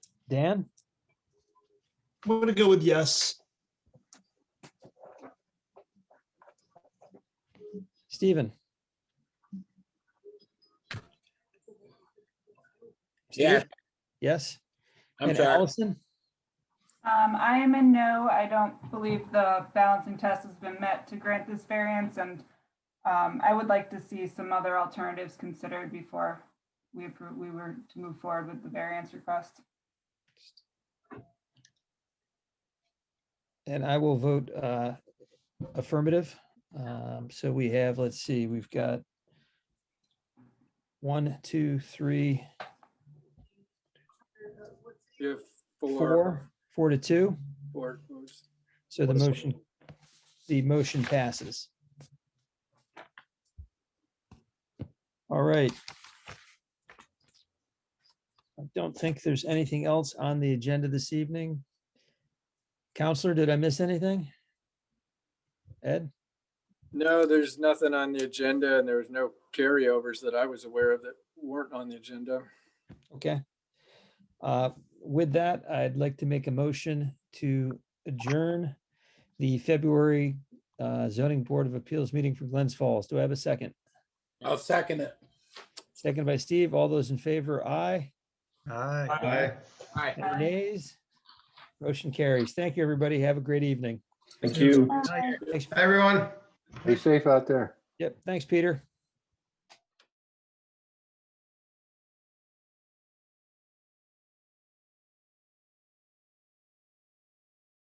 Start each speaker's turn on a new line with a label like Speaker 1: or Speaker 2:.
Speaker 1: Dan,
Speaker 2: I'm gonna go with yes.
Speaker 1: Stephen,
Speaker 3: Yeah,
Speaker 1: yes?
Speaker 3: I'm
Speaker 1: And
Speaker 3: sorry.
Speaker 1: Allison,
Speaker 4: Um, I am in no, I don't believe the balancing test has been met to grant this variance and um, I would like to see some other alternatives considered before we approve, we were to move forward with the variance request.
Speaker 1: and I will vote uh, affirmative. Um, So we have, let's see, we've got one, two, three,
Speaker 3: You have four,
Speaker 1: four, four to two.
Speaker 3: four votes.
Speaker 1: So the motion, the motion passes. All right. I don't think there's anything else on the agenda this evening. Counselor, did I miss anything? Ed?
Speaker 3: No, there's nothing on the agenda and there was no carryovers that I was aware of that weren't on the agenda.
Speaker 1: Okay. Uh, With that, I'd like to make a motion to adjourn the February uh, zoning board of appeals meeting for Glens Falls. Do I have a second?
Speaker 5: I'll second it.
Speaker 1: Second by Steve. All those in favor, aye.
Speaker 5: Aye. Aye.
Speaker 1: Any
Speaker 4: Aye.
Speaker 1: nays? Motion carries. Thank you, everybody. Have a great evening.
Speaker 3: Thank you.
Speaker 1: Thanks.
Speaker 5: Everyone.
Speaker 6: Be safe out there.
Speaker 1: Yep, thanks, Peter.